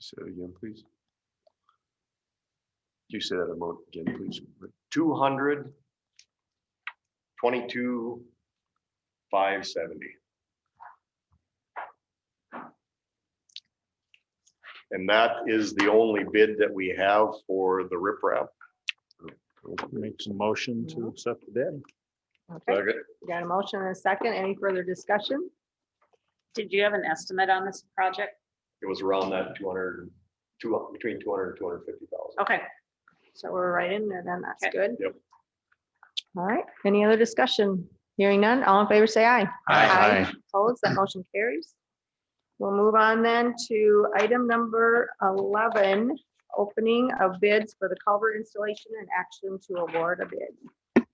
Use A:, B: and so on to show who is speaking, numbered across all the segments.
A: Say that again, please. Do you say that amount again, please? Two hundred twenty-two five seventy. And that is the only bid that we have for the riprap.
B: Make some motion to
C: Mhm.
B: accept the bid.
C: Okay, we got a motion and a second. Any further discussion?
D: Did you have an estimate on this project?
A: It was around that 200 two, between two hundred and two hundred fifty thousand.
D: Okay,
C: So we're right in there then. That's
D: Okay.
C: good.
A: Yep.
C: All right. Any other discussion? Hearing none. All in favor, say aye.
E: Aye.
C: Opposed? That motion carries. We'll move on then to item number 11, opening of bids for the culvert installation and action to award a bid.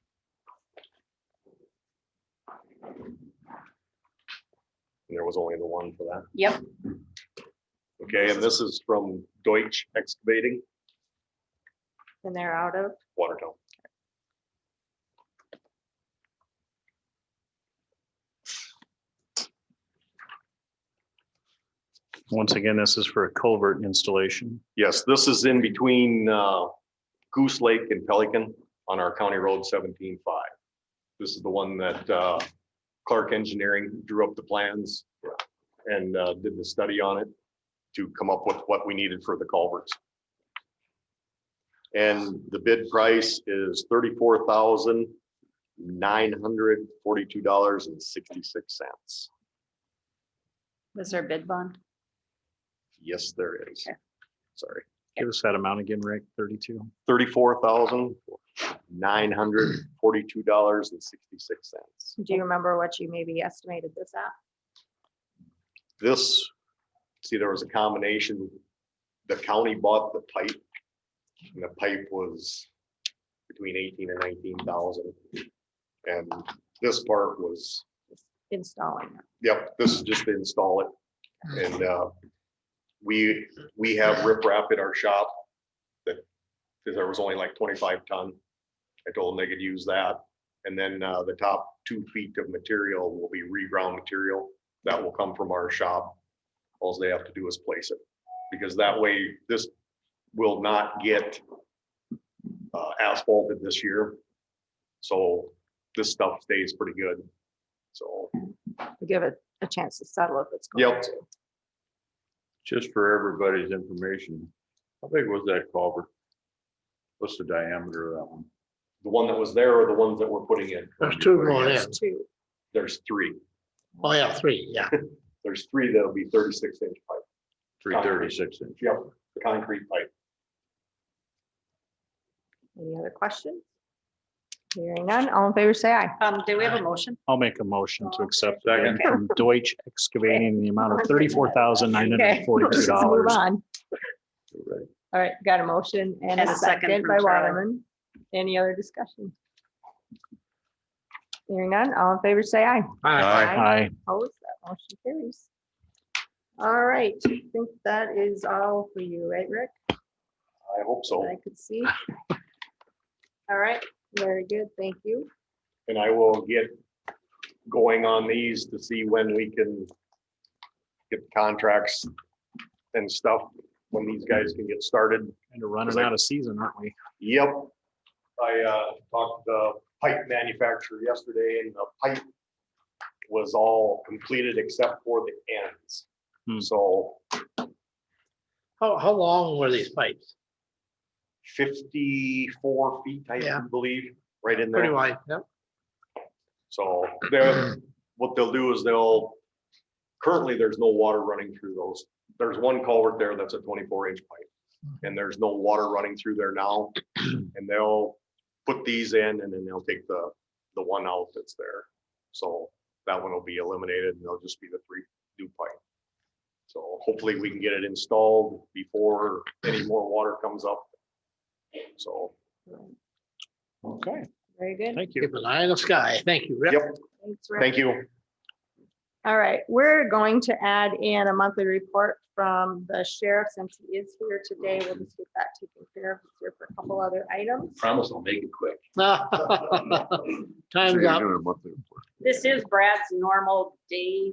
A: There was only the one for that.
D: yep,
A: Okay, and this is from Deutsch Excavating,
C: And they're out of,
A: Watertown.
B: Once again, this is for a culvert installation.
A: Yes, this is in between uh, Goose Lake and Pelican on our County Road seventeen five. This is the one that uh, Clark Engineering drew up the plans and uh, did the study on it to come up with what we needed for the culverts. And the bid price is thirty-four thousand nine hundred forty-two dollars and sixty-six cents.
D: was there a bid bond?
A: Yes, there is.
D: Okay.
A: Sorry.
B: Give us that amount again, Rick, thirty-two.
A: thirty-four thousand, nine hundred forty-two dollars and sixty-six cents.
C: do you remember what you maybe estimated this at?
A: This, see, there was a combination, the county bought the pipe. And the pipe was between eighteen and nineteen thousand. And this part was,
C: Installing.
A: yep, this is just to install it. And, uh, we, we have riprap in our shop that, because there was only like twenty-five ton. I told them they could use that. And then uh, the top two feet of material will be reground material that will come from our shop. All they have to do is place it, because that way this will not get uh, asphalted this year. So this stuff stays pretty good. So,
C: to give it a chance to settle if it's going
A: yep,
C: to.
E: Just for everybody's information, how big was that culvert? What's the diameter of that one?
A: the one that was there are the ones that we're putting in.
F: There's two going in.
C: It's two.
A: There's three.
F: Oh, yeah, three, yeah.
A: There's three that'll be thirty-six inch pipe.
E: Three thirty-six inch.
A: Yep, the concrete pipe.
C: Any other questions? Hearing none, all in favor, say aye.
D: Um, do we have a motion?
B: I'll make a motion to
C: Oh, Okay.
B: accept the bid from Deutsch Excavating in the amount of thirty-four thousand nine hundred
C: Okay,
B: and
C: let's
B: forty-two
C: Move
B: dollars.
C: on. All right, got a motion and a second by
D: from Charlie.
C: Waterman. Any other discussion? Hearing none, all in favor, say aye.
F: Aye.
B: Aye.
C: Opposed, that motion carries. All right, I think that is all for you, right, Rick?
A: I hope so.
C: I could see. All right, very good, thank you.
A: And I will get going on these to see when we can get contracts and stuff, when these guys can get started.
B: Kind of running out of season, aren't we?
A: Yep. I uh, talked to the pipe manufacturer yesterday and the pipe was all completed except for the ends.
B: Hmm.
A: So
F: How, how long were these pipes?
A: fifty-four feet, I
F: Yeah.
A: believe, right in
F: Pretty
A: there.
F: wide, yeah.
A: So they're, what they'll do is they'll, currently, there's no water running through those. There's one culvert there that's a twenty-four inch pipe.
F: Hmm.
A: And there's no water running through there now. And they'll put these in and then they'll take the, the one out that's there. So that one will be eliminated and they'll just be the three new pipe. So hopefully we can get it installed before any more water comes up. So,
B: Okay,
C: Very good.
B: thank you.
F: Keep an eye on the sky. Thank you, Rick.
A: yep,
C: Thanks, Rick.
A: thank you.
C: All right, we're going to add in a monthly report from the sheriff since he is here today. We'll just get that taken care of He's here for a couple other items.
E: Promise I'll make it quick.
F: Time's up.
D: This is Brad's normal day